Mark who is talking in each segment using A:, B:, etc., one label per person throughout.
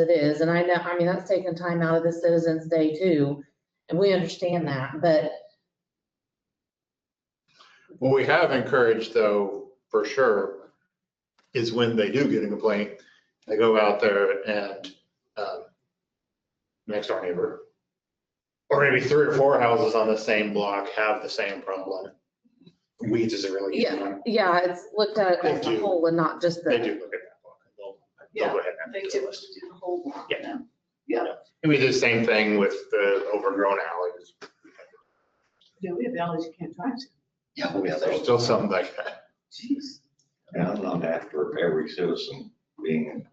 A: it is, and I know, I mean, that's taking time out of the Citizens Day too, and we understand that, but
B: What we have encouraged though, for sure, is when they do get a complaint, they go out there and, um, next door neighbor, or maybe three or four houses on the same block have the same problem. Weeds is a really good
A: yeah,
B: one.
A: yeah, it's looked at
B: They
A: as a
B: do.
A: whole and not just
B: They
A: the,
B: do look at that block. They'll, they'll go ahead and
C: They
B: add it to
C: do
B: the
C: have
B: list.
C: to do the whole block
B: Yeah.
C: now.
B: And we did the same thing with the overgrown alleys.
C: Yeah, we have alleys you can't drive to.
D: Yeah, we
B: Yeah,
D: have
B: There's
D: those.
B: still some like that.
C: Jeez.
D: And I'm not after every citizen being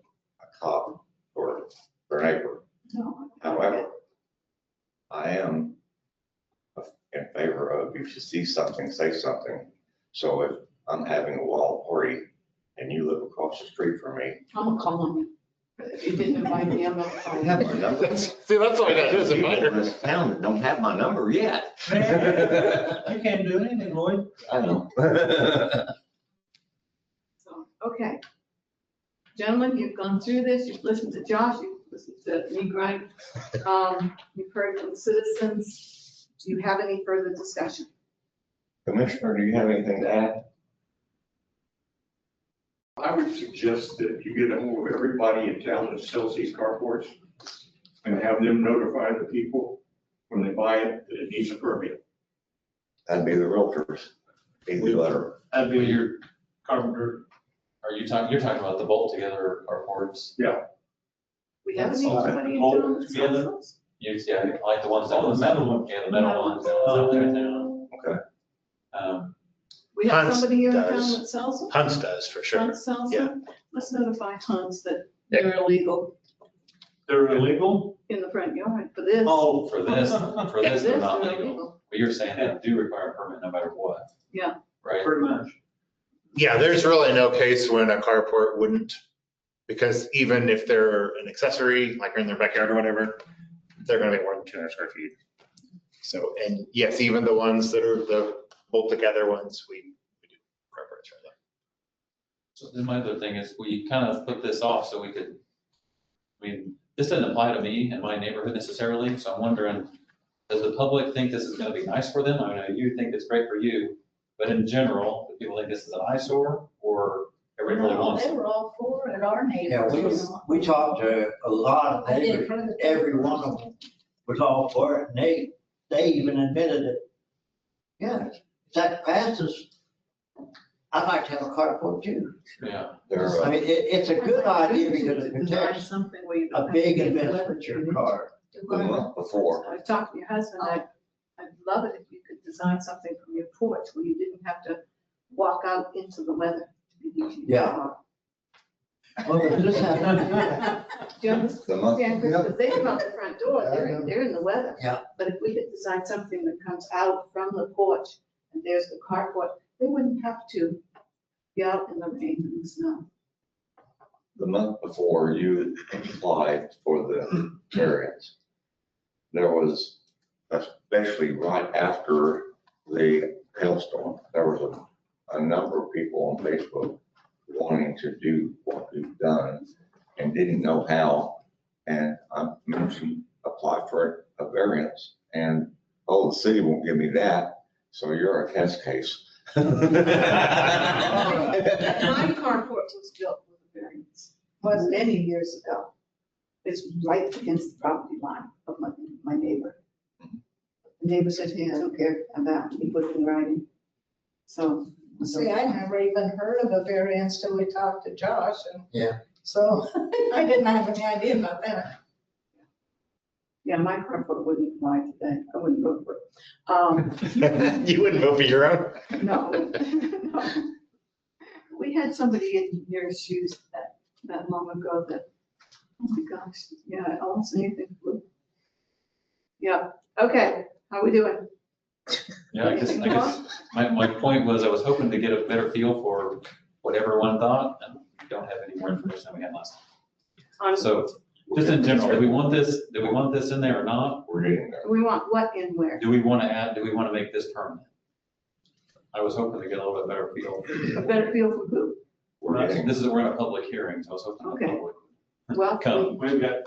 D: a cop or their neighbor.
C: No.
B: Oh,
D: However, I am in favor of you should see something, say something. So if I'm having a wall party and you live across the street from me,
C: I'm gonna call them. If you didn't invite me, I'm gonna call
D: you have
C: them.
D: my number.
B: That's- See, that's all that is, a
D: People in
B: minor.
D: this town that don't have my number yet.
E: Man, You can't do anything, Lloyd.
D: I know.
C: So, Okay. Gentlemen, you've gone through this, you've listened to Josh, you've listened to me grind. Um, You've heard from citizens. Do you have any further discussion?
D: Commissioner, do you have anything to add?
F: I would suggest that you get a hold of everybody in town that sells these carports and have them notify the people when they buy it that it needs a permit.
D: That'd be the realtors. Easy letter.
G: That'd be your carpenter, are you talking, you're talking about the bolt together carports?
C: We have any
G: All right.
C: anybody in
G: All
C: town that sells
G: together.
C: those?
G: You, yeah, like the ones that are the metal, yeah, the metal ones that was out there in town.
D: Okay.
G: Um,
C: We have
B: Hans
C: somebody here in town
B: does.
C: that sells them?
B: Hunts does, for sure.
C: Hans sells
B: yeah.
C: them? Let's notify Hans that they're illegal
F: They're illegal?
C: in the front yard for this.
G: oh, for this, for
C: This
G: this, they're
C: is
G: not legal,
C: illegal.
G: but you're saying they do require a permit no matter what.
C: Yeah.
G: Right,
F: Pretty much.
B: Yeah, there's really no case when a carport wouldn't, because even if they're an accessory, like in their backyard or whatever, they're gonna be more than two hundred square feet. So, and yes, even the ones that are the bolt together ones, we we do carports for them.
G: so then my other thing is, we kind of put this off so we could, I mean, this doesn't apply to me and my neighborhood necessarily, so I'm wondering, does the public think this is gonna be nice for them? I know you think it's great for you, but in general, do people think this is an eyesore, or everybody really wants it?
H: They were all for it, our
E: Yeah,
H: neighbors,
E: we,
H: you know.
E: we talked to a lot of
H: I didn't
E: neighbors,
H: approve.
E: every one of them was all for it, and they, they even admitted it. Yeah, if that passes, I'd like to have a carport too.
G: Yeah,
D: They're,
E: I
D: uh,
E: mean, it, it's a good idea because it
C: Design
E: protects
C: something where you
E: a
C: don't have to
E: big
C: get
E: investment,
C: delivered.
E: your car.
D: the month before.
C: I talked to your husband, I, I'd love it if you could design something from your porch where you didn't have to walk out into the weather. to get to your
E: Yeah.
C: car.
E: Well, if this happens,
C: Do you understand?
D: The month.
C: Because they come out the front door,
E: Yeah, I
C: they're,
E: know.
C: they're in the weather.
E: Yeah.
C: But if we could design something that comes out from the porch and there's the carport, they wouldn't have to be out in the rain and the snow.
D: the month before you applied for the variance, there was, especially right after the hailstorm, there was a, a number of people on Facebook wanting to do what we've done and didn't know how. And I mentioned, apply for a variance and, oh, the city won't give me that, so you're a test case.
C: My carport was built with a variance, was many years ago. It's right against the property line of my, my neighbor. The neighbor said, hey, I don't care about, he put it in writing. So.
H: See, I never even heard of a variance till we talked to Josh and.
E: Yeah.
H: So I didn't have any idea about that.
C: Yeah, my carport wouldn't fly today, I wouldn't vote for it. Um,
B: You wouldn't vote for your own?
C: no. We had somebody in your shoes that, that long ago that, oh my gosh, yeah, I almost anything blue. Yeah, okay, how we doing?
G: yeah, I guess, I guess, my, my point was, I was hoping to get a better feel for what everyone thought, and we don't have any more information than we had last
C: On-
G: time. So, just in general, do we want this, do we want this in there or not?
D: We're getting there.
C: We want what and where?
G: Do we want to add, do we want to make this permanent? I was hoping to get a little bit better feel.
C: A better feel for who?
D: We're getting
G: This is, we're in a public hearing, so I was hoping the
C: Okay.
G: public
I: Well, can we
J: Come.
G: We've got